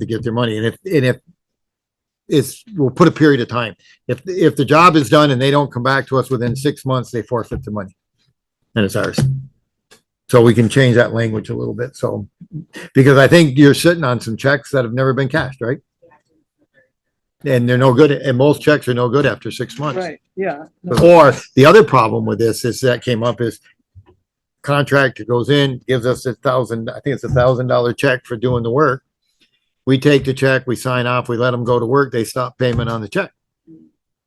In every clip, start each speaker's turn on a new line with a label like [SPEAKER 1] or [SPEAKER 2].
[SPEAKER 1] to get their money. And if, and if it's, we'll put a period of time. If, if the job is done and they don't come back to us within six months, they forfeit the money. And it's ours. So we can change that language a little bit. So, because I think you're sitting on some checks that have never been cashed, right? And they're no good, and most checks are no good after six months.
[SPEAKER 2] Right, yeah. No,
[SPEAKER 1] Or the other problem with this is that came up is contractor goes in, gives us a thousand, I think it's a thousand dollar check for doing the work. We take the check, we sign off, we let them go to work, they stop payment on the check.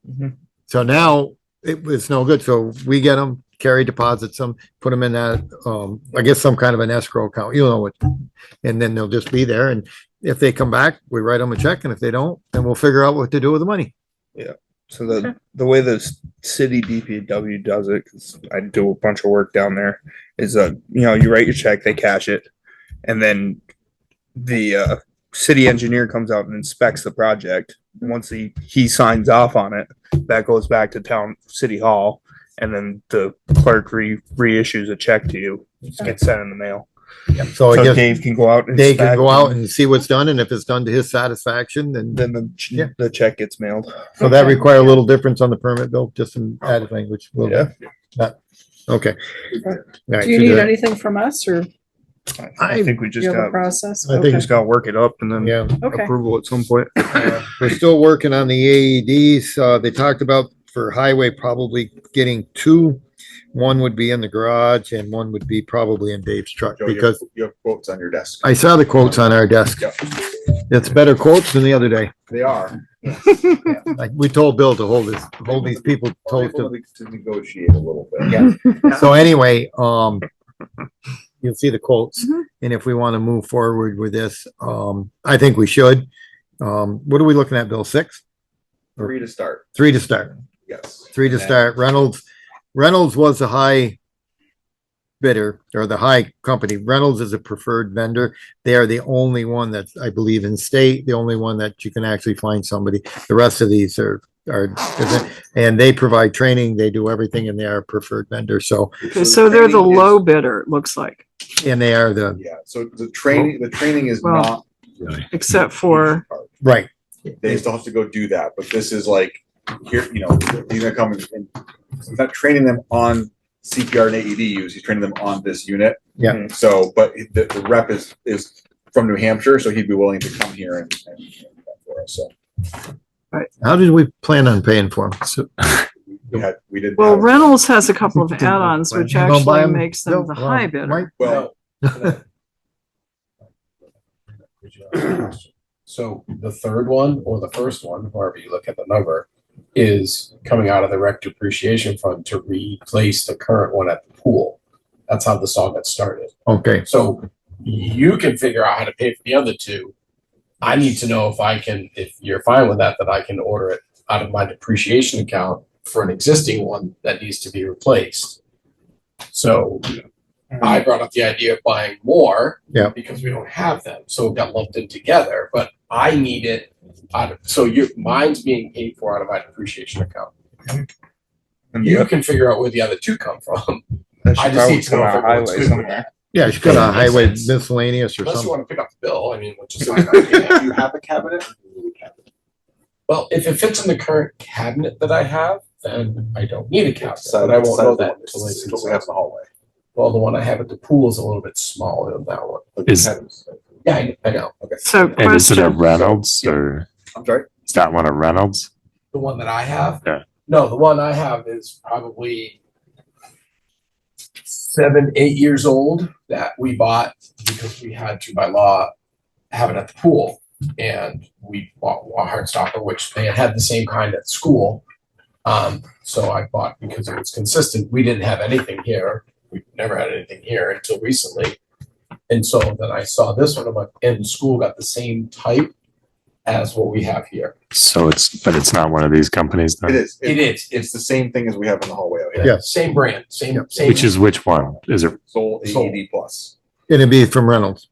[SPEAKER 3] Mhm.
[SPEAKER 1] So now it was no good. So we get them, carry deposits them, put them in that, um, I guess some kind of an escrow account, you know what? And then they'll just be there. And if they come back, we write them a check. And if they don't, then we'll figure out what to do with the money.
[SPEAKER 3] So the the way the s- city DPW does it, 'cause I do a bunch of work down there, is uh you know you write your check, they cash it, and then the uh, city engineer comes out and inspects the project. Once he he signs off on it, that goes back to town city hall, and then the clerk re reissues a check to you. It gets sent in the mail.
[SPEAKER 1] So Oh, I
[SPEAKER 3] so
[SPEAKER 1] guess.
[SPEAKER 3] Dave can go out. And
[SPEAKER 1] They can go
[SPEAKER 3] inspect,
[SPEAKER 1] out and see what's done, and if it's done to his satisfaction, then,
[SPEAKER 3] Then the ch-
[SPEAKER 1] Yeah.
[SPEAKER 3] the check gets mailed.
[SPEAKER 1] so that require a little difference on the permit bill, just some added language. a little bit. Not- Okay. All right,
[SPEAKER 2] Do you
[SPEAKER 1] so
[SPEAKER 2] need
[SPEAKER 1] the-
[SPEAKER 2] anything from us or
[SPEAKER 3] I,
[SPEAKER 1] I-
[SPEAKER 3] I think we
[SPEAKER 2] do
[SPEAKER 3] just
[SPEAKER 2] you have a
[SPEAKER 3] got
[SPEAKER 2] process?
[SPEAKER 1] I think
[SPEAKER 3] we
[SPEAKER 2] Okay,
[SPEAKER 3] just got to work it up and then
[SPEAKER 1] Yeah,
[SPEAKER 2] Okay,
[SPEAKER 3] approval at some point.
[SPEAKER 4] Uh,
[SPEAKER 1] we're still working on the AEDs, uh, they talked about for highway probably getting two. One would be in the garage and one would be probably in Dave's truck,
[SPEAKER 4] Joe, you have-
[SPEAKER 1] because
[SPEAKER 4] You have quotes on your desk.
[SPEAKER 1] I saw the quotes on our desk.
[SPEAKER 4] Yeah.
[SPEAKER 1] It's better quotes than the other day.
[SPEAKER 4] They are.
[SPEAKER 1] Like, we told Bill to hold this, hold these people toast to
[SPEAKER 4] Able to to negotiate a little bit.
[SPEAKER 1] Yeah. So anyway, um, you'll see the quotes.
[SPEAKER 2] Mhm.
[SPEAKER 1] And if we want to move forward with this, um, I think we should. Um, what are we looking at, Bill? Six?
[SPEAKER 4] Three to start,
[SPEAKER 1] Three to start,
[SPEAKER 4] yes.
[SPEAKER 1] three to start. Reynolds, Reynolds was a high bidder or the high company. Reynolds is a preferred vendor. They are the only one that's, I believe, in state, the only one that you can actually find somebody. The rest of these are, are, and they provide training, they do everything and they are a preferred vendor. So,
[SPEAKER 2] Okay, so they're the
[SPEAKER 4] training is-
[SPEAKER 2] low bidder, it looks like,
[SPEAKER 1] and they are the,
[SPEAKER 4] Yeah, so the training, the training is
[SPEAKER 2] Well,
[SPEAKER 4] not.
[SPEAKER 2] except for,
[SPEAKER 1] right.
[SPEAKER 4] They still have to go do that, but this is like, here, you know, these are coming, and he's not training them on CPR and AED use, he's training them on this unit.
[SPEAKER 2] Mm-hmm.
[SPEAKER 1] Yeah.
[SPEAKER 4] So, but the, the rep is, is from New Hampshire, so he'd be willing to come here and, and and do that for us, so.
[SPEAKER 1] How did we plan on paying for them? So,
[SPEAKER 4] We had, we didn't.
[SPEAKER 2] well,
[SPEAKER 4] have-
[SPEAKER 2] Reynolds has a couple of add-ons, which
[SPEAKER 1] You gonna buy
[SPEAKER 2] actually
[SPEAKER 1] 'em?
[SPEAKER 2] makes them the
[SPEAKER 1] Bill?
[SPEAKER 2] high
[SPEAKER 1] Well, Mike?
[SPEAKER 2] bidder.
[SPEAKER 4] Well,
[SPEAKER 5] So the third one or the first one, however you look at the number, is coming out of the rec depreciation fund to replace the current one at the pool. That's how this all got started.
[SPEAKER 1] Okay,
[SPEAKER 5] So you can figure out how to pay for the other two. I need to know if I can, if you're fine with that, that I can order it out of my depreciation account for an existing one that needs to be replaced. So I brought up the idea of buying more.
[SPEAKER 1] Yeah.
[SPEAKER 5] Because we don't have them, so it got lumped in together, but I need it out of, so your, mine's being paid for out of my depreciation account.
[SPEAKER 3] And
[SPEAKER 5] You can figure out where the other two come from.
[SPEAKER 3] That
[SPEAKER 5] I
[SPEAKER 3] should
[SPEAKER 5] just
[SPEAKER 3] probably
[SPEAKER 5] need to
[SPEAKER 3] come
[SPEAKER 5] know
[SPEAKER 3] out of
[SPEAKER 5] if everyone's
[SPEAKER 3] highway
[SPEAKER 5] good with
[SPEAKER 3] somewhere.
[SPEAKER 5] that.
[SPEAKER 1] yeah, she's got a
[SPEAKER 5] Makes
[SPEAKER 1] highway
[SPEAKER 5] sense.
[SPEAKER 1] miscellaneous or
[SPEAKER 5] Unless you
[SPEAKER 1] something.
[SPEAKER 5] wanna pick up the bill, I mean, which is. fine by me.
[SPEAKER 4] do you have a cabinet?
[SPEAKER 5] Well, if it fits in the current cabinet that I have, then I don't need a cabinet, but I won't know that until I see.
[SPEAKER 4] we have in the hallway.
[SPEAKER 5] Well, the one I have at the pool is a little bit smaller than that one.
[SPEAKER 6] Is-
[SPEAKER 5] Yeah, I, I know.
[SPEAKER 2] So
[SPEAKER 6] And is it a
[SPEAKER 2] question,
[SPEAKER 6] Reynolds or
[SPEAKER 4] I'm sorry?
[SPEAKER 6] is that one a Reynolds?
[SPEAKER 5] The one that I have?
[SPEAKER 6] Yeah.
[SPEAKER 5] No, the one I have is probably seven, eight years old that we bought because we had to by law have it at the pool. And we bought a Heartstopper, which they had the same kind at school. Um, so I bought because it was consistent. We didn't have anything here. We've never had anything here until recently. And so then I saw this one, I'm like, and the school got the same type as what we have here.
[SPEAKER 6] So it's, but it's not one of these companies
[SPEAKER 4] It
[SPEAKER 6] then,
[SPEAKER 4] is.
[SPEAKER 5] It is.
[SPEAKER 4] It's the same thing as we have in the hallway out here.
[SPEAKER 1] Yeah.
[SPEAKER 5] Same brand, same, same.
[SPEAKER 6] which is which one? Is it,
[SPEAKER 4] Soul
[SPEAKER 5] Soul.
[SPEAKER 4] AED plus.
[SPEAKER 1] It'd be from Reynolds.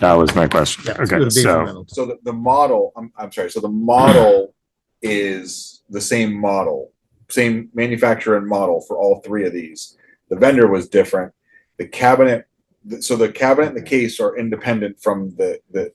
[SPEAKER 6] that was my question.
[SPEAKER 1] Yeah,
[SPEAKER 6] Okay,
[SPEAKER 1] it'd be from
[SPEAKER 6] so,
[SPEAKER 1] Reynolds.
[SPEAKER 4] So the, the model, I'm, I'm sorry, so the model is the same model, same manufacturer and model for all three of these. The vendor was different. The cabinet, th- so the cabinet and the case are independent from the, the,